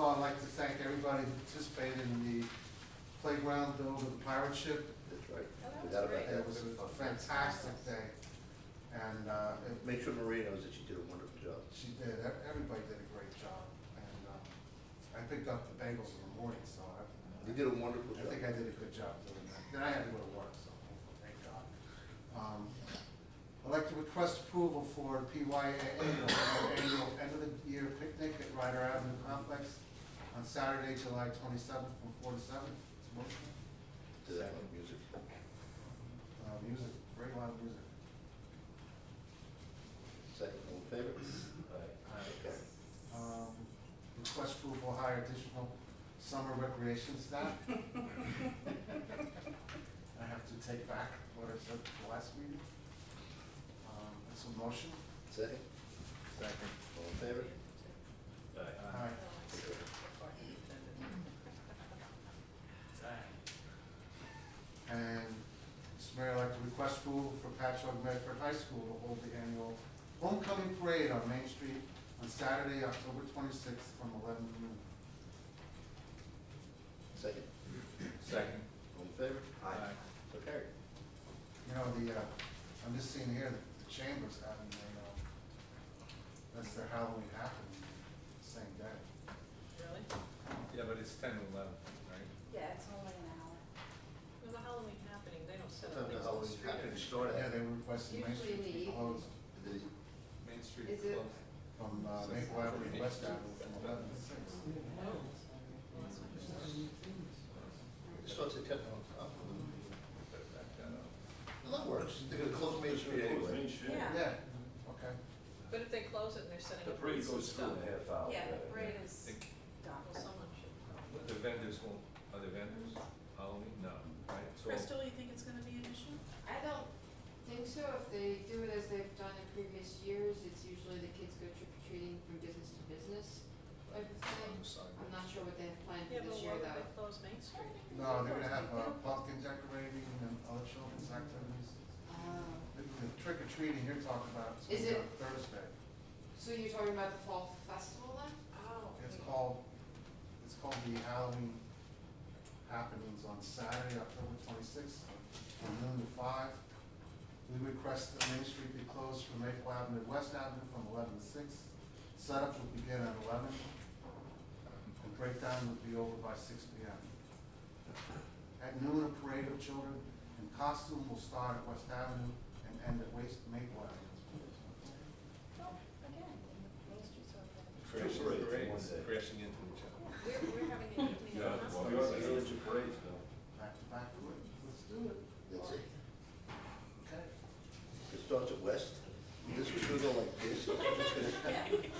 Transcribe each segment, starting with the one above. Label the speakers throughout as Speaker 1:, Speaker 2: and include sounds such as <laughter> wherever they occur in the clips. Speaker 1: Uh, <clears throat> everybody participated in the playground over the pirate ship.
Speaker 2: That's
Speaker 3: Oh,
Speaker 2: right.
Speaker 3: that's
Speaker 2: Forgot about
Speaker 3: great.
Speaker 2: that.
Speaker 1: It was a fantastic day. And uh, it-
Speaker 2: Make sure Maria knows that she did a wonderful job.
Speaker 1: she did, e- everybody did a great job. And uh, I picked up the bagels in the morning, so I.
Speaker 2: You did a wonderful
Speaker 1: I
Speaker 2: job.
Speaker 1: think I did a good job doing that. Then I had to go to work, so thank God. Um, I'd like to request approval for PYAA, our annual end-of-the-year picnic at Ryder Avenue Complex on Saturday, July twenty-seventh, from four to seven. It's a motion.
Speaker 2: To that one, music.
Speaker 1: Uh, Music, very loud music.
Speaker 2: Second, all in favor? Okay.
Speaker 1: Um, Request approval, to hire additional summer recreation staff. I have to take back what I said at the last meeting. Um, That's a motion.
Speaker 2: Second,
Speaker 1: Second.
Speaker 2: all in favor?
Speaker 1: Aye.
Speaker 2: Okay.
Speaker 1: And, Mr. Mayor, I'd like to request approval for Patchogue Medford High School to hold the annual homecoming parade on Main Street on Saturday, October twenty-sixth, from eleven to noon.
Speaker 2: Second,
Speaker 4: Second.
Speaker 2: all in favor?
Speaker 4: Aye.
Speaker 2: So carried.
Speaker 1: You know, the, uh, I'm just seeing here, that the Chambers having their, uh, that's their Halloween happening, same day.
Speaker 3: Really?
Speaker 4: Yeah, but it's ten to eleven, right?
Speaker 5: Yeah, it's only an hour.
Speaker 3: Well, the Halloween happening, they don't set up
Speaker 2: What
Speaker 3: things on
Speaker 2: time the
Speaker 3: the
Speaker 2: Halloween
Speaker 3: street.
Speaker 2: happening start
Speaker 1: Yeah,
Speaker 2: at?
Speaker 1: they were requesting Main
Speaker 5: Usually
Speaker 1: Street to
Speaker 5: in the
Speaker 1: be
Speaker 5: evening.
Speaker 1: closed
Speaker 2: Did-
Speaker 4: Main Street
Speaker 5: Is
Speaker 4: is
Speaker 5: it-
Speaker 4: closed.
Speaker 1: from, uh,
Speaker 4: So-
Speaker 1: Maple Avenue to West Avenue from eleven to six.
Speaker 3: Oh. Well, that's what it is.
Speaker 2: It starts at ten, oh,
Speaker 4: Better back that uh, up.
Speaker 2: oh. that works. They're gonna close Main Street anyway.
Speaker 3: Yeah.
Speaker 5: Ah.
Speaker 1: Yeah, okay.
Speaker 3: But if they close it and they're setting up
Speaker 6: The parade
Speaker 3: some
Speaker 6: goes through
Speaker 3: stuff,
Speaker 6: in a half hour.
Speaker 5: Yeah, the
Speaker 6: uh,
Speaker 5: parade
Speaker 4: I
Speaker 5: is
Speaker 4: think
Speaker 5: done.
Speaker 3: well, someone should.
Speaker 4: But the vendors won't, are the vendors Halloween? No, right? It's all-
Speaker 3: Crystal, you think it's gonna be an issue?
Speaker 5: I don't think so. If they do it as they've done in previous years, it's usually the kids go trick or treating from business to business type of thing.
Speaker 4: On the side.
Speaker 5: I'm not sure what they have planned
Speaker 3: Yeah, but
Speaker 5: for this
Speaker 3: why
Speaker 5: year
Speaker 3: would
Speaker 5: though.
Speaker 3: they close Main Street?
Speaker 1: No, they're gonna have uh,
Speaker 7: Oh,
Speaker 1: pumpkin decorating and other children's activities.
Speaker 5: Oh,
Speaker 1: The the trick or treating you're talking about is
Speaker 5: Is
Speaker 1: gonna be
Speaker 5: it-
Speaker 1: on Thursday.
Speaker 5: so you're talking about the fall festival then?
Speaker 3: Oh.
Speaker 1: It's called, it's called the Halloween Happenings on Saturday, October twenty-sixth, from noon to five. We request that Main Street be closed from Maple Avenue to West Avenue from eleven to six. Setup will begin at eleven. And breakdown will be over by six P M. At noon, a parade of children in costume will start at West Avenue and end at West Maple Avenue.
Speaker 3: Well, again, Main Street's over there.
Speaker 4: Crashing
Speaker 2: Two parades in
Speaker 4: parades,
Speaker 2: one day.
Speaker 4: crashing into each other.
Speaker 3: We're, we're having an evening
Speaker 6: Yeah,
Speaker 3: at the
Speaker 6: well,
Speaker 3: hospital.
Speaker 6: we are the village of parades now.
Speaker 1: Back to back, let's do it.
Speaker 2: That's it.
Speaker 1: Okay.
Speaker 2: It starts at west. This was gonna go like this. It's gonna-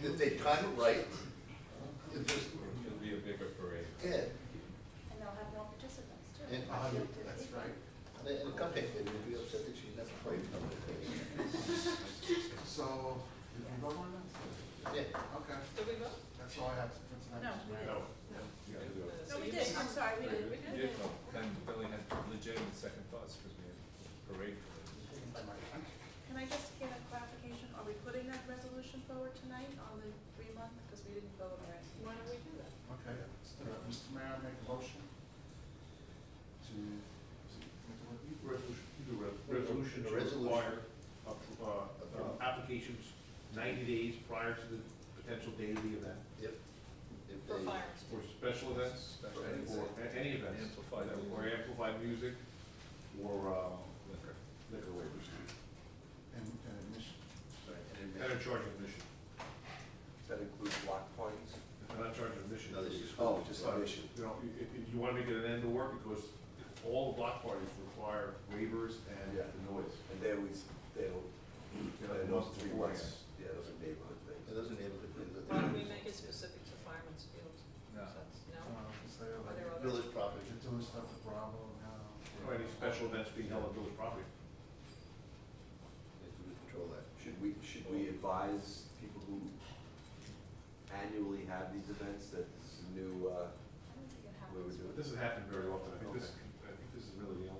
Speaker 2: If they time it right, it just,
Speaker 4: It'll be a bigger parade.
Speaker 2: yeah,
Speaker 5: And they'll have more participants too.
Speaker 2: and,
Speaker 1: Ah, yeah, That's right.
Speaker 2: and the company, they'd be upset that she never played.
Speaker 1: So, did we vote on
Speaker 2: Yeah,
Speaker 1: that? Okay,
Speaker 3: Did we vote?
Speaker 1: that's all I have for tonight.
Speaker 3: No,
Speaker 1: Mr.
Speaker 3: we
Speaker 1: Mayor.
Speaker 3: didn't.
Speaker 5: No, we did, I'm sorry, we did.
Speaker 3: we
Speaker 4: You
Speaker 3: did.
Speaker 4: did, no, and Billy had legitimate second thoughts because we had a parade.
Speaker 1: Into my-
Speaker 7: Can I just get a clarification, are we putting that resolution forward tonight on the three month, because we didn't vote on it?
Speaker 3: Why don't we do that?
Speaker 1: Okay, let's do it. Mr. Mayor, I make a motion to, is it- make a-
Speaker 8: Resolution, either re-
Speaker 2: Resolution.
Speaker 8: resolution to
Speaker 2: Resolution.
Speaker 8: require, uh, uh, applications ninety days prior to the potential date of the event,
Speaker 2: yep. If
Speaker 3: For
Speaker 2: they-
Speaker 3: fire.
Speaker 8: for special events,
Speaker 4: Special events.
Speaker 8: or a- any events.
Speaker 4: Amplified
Speaker 8: that-
Speaker 4: music.
Speaker 8: Or amplified music, or, um,
Speaker 4: Liquor.
Speaker 8: liquor waivers,
Speaker 1: and, and uh, admission.
Speaker 2: And
Speaker 8: and
Speaker 2: then-
Speaker 8: a charge of admission,
Speaker 6: That includes block parties?
Speaker 8: and not charge of admission.
Speaker 2: No, this is-
Speaker 6: Oh, just
Speaker 8: But,
Speaker 6: admission.
Speaker 8: You know, if, if you wanna make it an end to work, because all block parties require waivers and
Speaker 6: Yeah.
Speaker 8: the noise.
Speaker 6: And they always, they'll,
Speaker 8: You know,
Speaker 6: they'll,
Speaker 8: most
Speaker 6: three
Speaker 8: beforehand.
Speaker 6: months, yeah, those are neighborhood
Speaker 2: It
Speaker 6: things.
Speaker 2: doesn't neighborhood things.
Speaker 3: Why don't we make it specific to firemen's fields?
Speaker 4: No.
Speaker 3: So it's-
Speaker 1: Uh,
Speaker 3: No?
Speaker 1: is there,
Speaker 3: Are
Speaker 1: like,
Speaker 3: there other?
Speaker 2: Village property.
Speaker 1: You're doing stuff with Bravo now.
Speaker 8: Or any special events being held on village property.
Speaker 2: If we control that.
Speaker 6: Should we, should we advise people who annually have these events that this is a new, uh,
Speaker 7: I don't think it
Speaker 6: way
Speaker 7: happens.
Speaker 6: we do it?
Speaker 8: This has happened very often, I think this, I think this is really the only